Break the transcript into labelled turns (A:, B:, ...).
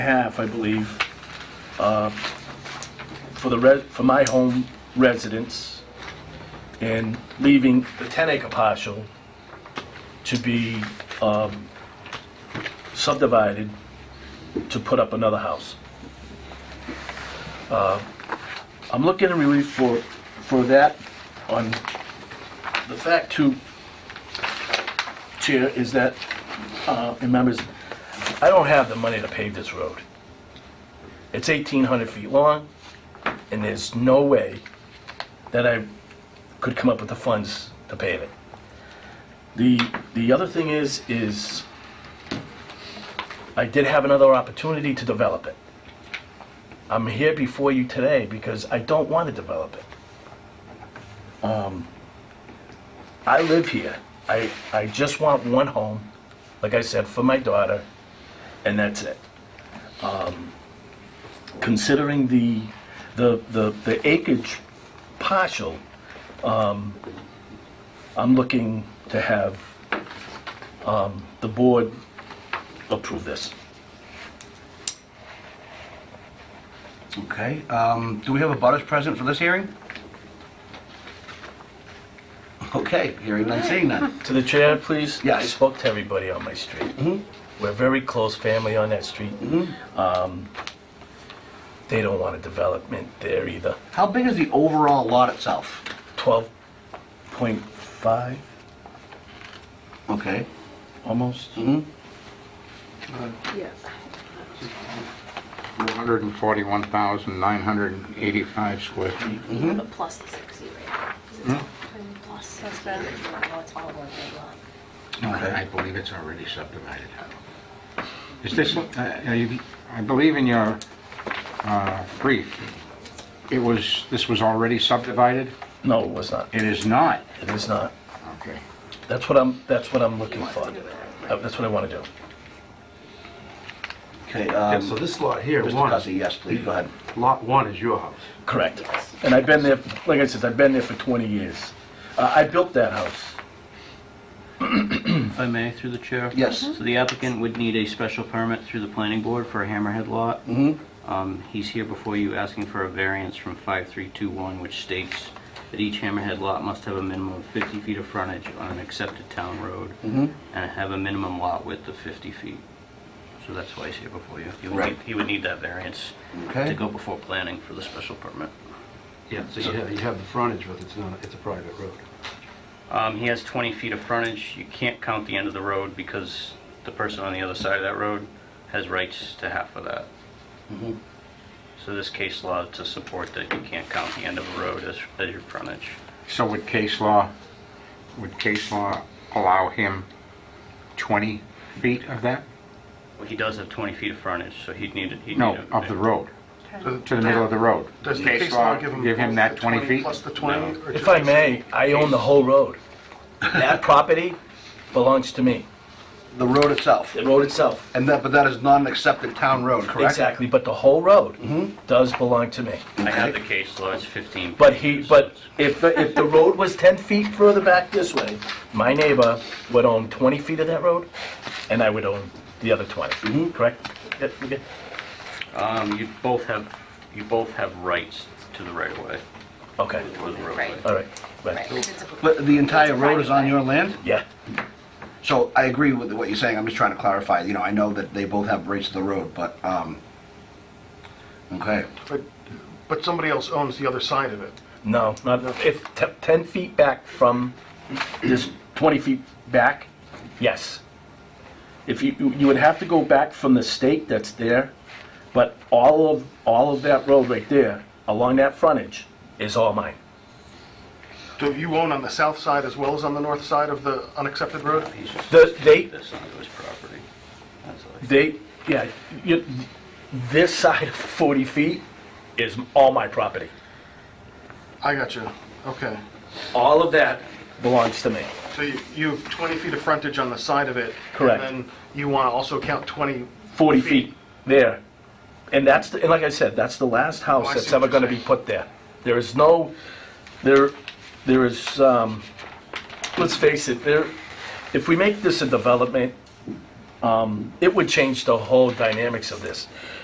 A: half, I believe, uh, for the res, for my home residence, and leaving the 10-acre partial to be um, subdivided to put up another house. Uh, I'm looking at relief for, for that on, the fact too, Chair, is that, uh, and members, I don't have the money to pave this road. It's 1,800 feet long, and there's no way that I could come up with the funds to pave it. The, the other thing is, is I did have another opportunity to develop it. I'm here before you today because I don't want to develop it. Um, I live here. I, I just want one home, like I said, for my daughter and that's it. Um, Considering the, the, the the acreage partial, um, I'm looking to have um, the board approve this.
B: Okay, um, do we have a butters present for this hearing? Okay, hearing none, seeing none.
A: To the chair, please?
B: Yes.
A: I spoke to everybody on my street. We're a very close family on that street. Um, They don't want a development there either.
B: How big is the overall lot itself?
A: 12.5,
B: Okay.
A: almost?
B: Mhm.
C: Yes.
D: 141,985 square feet.
B: Mm-hmm.
C: But plus the 60 right
B: Hmm?
C: now. And Plus 60, right now it's all one big lot.
D: I believe it's already subdivided. Is this, uh, are you- I believe in your uh, brief, it was, this was already subdivided?
A: No, it was not.
D: It is not.
A: It is not.
D: Okay.
A: That's what I'm, that's what I'm looking for. Uh, That's what I want to do.
B: Okay,
E: Yeah,
B: um,
E: so
B: Mr.
E: this lot here, one,
B: Cussie, yes, please, go ahead.
E: lot one is your house.
A: Correct. And I've been there, like I said, I've been there for 20 years. Uh, I built that house.
F: If I may, through the chair?
B: Yes.
F: So the applicant would need a special permit through the planning board for a hammerhead lot.
B: Mm-hmm.
F: Um, He's here before you asking for a variance from 5321, which states that each hammerhead lot must have a minimum of 50 feet of frontage on an accepted town road
B: Mm-hmm.
F: and have a minimum lot width of 50 feet. So that's why he's here before you. He would
B: Right.
F: need- He would need that variance
B: Okay.
F: to go before planning for the special permit.
E: Yeah, so you have, you have the frontage, but it's not, it's a private road.
F: Um, He has 20 feet of frontage. You can't count the end of the road because the person on the other side of that road has rights to half of that.
A: Mm-hmm.
F: So this case law to support that you can't count the end of a road as as your frontage.
D: So would case law, would case law allow him 20 feet of that?
F: Well, He does have 20 feet of frontage, so he'd need, he'd need...
D: No,
F: a-
D: of the road, to the middle of the road.
G: Does the case law give him...
D: that
G: the
D: 20 feet?
G: Plus the 20? or
A: If
G: just-
A: I may, I own the whole road. That property belongs to me,
B: The road itself,
A: the road itself.
B: and that, but that is not an accepted town road, correct?
A: Exactly, but the whole road does belong to me.
F: I have the case law, it's 15.
A: But he,
F: pages, so
A: but if,
F: it's-
A: if the road was 10 feet further back this way, my neighbor would own 20 feet of that road, and I would own the other 20, correct? Yeah, okay.
F: um, You both have, you both have rights to the right-of-way,
A: Okay,
F: or the roadway.
C: Right.
A: all right,
C: Right,
A: right,
C: 'cause it's a-
B: But the entire road is on your
C: Right.
B: land?
A: yeah.
B: So I agree with what you're saying, I'm just trying to clarify, you know, I know that they both have rights to the road, but, um, okay,
G: But- But somebody else owns the other side of it.
A: No, not, if te- 10 feet back from, this 20 feet back, yes. If you, you would have to go back from the stake that's there, but all of, all of that road right there, along that frontage, is all mine.
G: Do you own on the south side as well as on the north side of the unaccepted road?
F: He's just
A: The- they-
F: taking this onto his property. That's all.
A: They, yeah, you, this side of 40 feet is all my property.
G: I got you. Okay.
A: All of that belongs to me.
G: So you you have 20 feet of frontage on the side of it.
A: Correct.
G: And then you want to also count 20...
A: 40 feet there. And that's, the- and like I said, that's the last
G: Oh,
A: house
G: I
A: that's
G: see what
A: ever
G: you're
A: gonna be
G: saying.
A: put there. There is no, there, there is, um, let's face it, there, if we make this a development, Um, It would change the whole dynamics of this.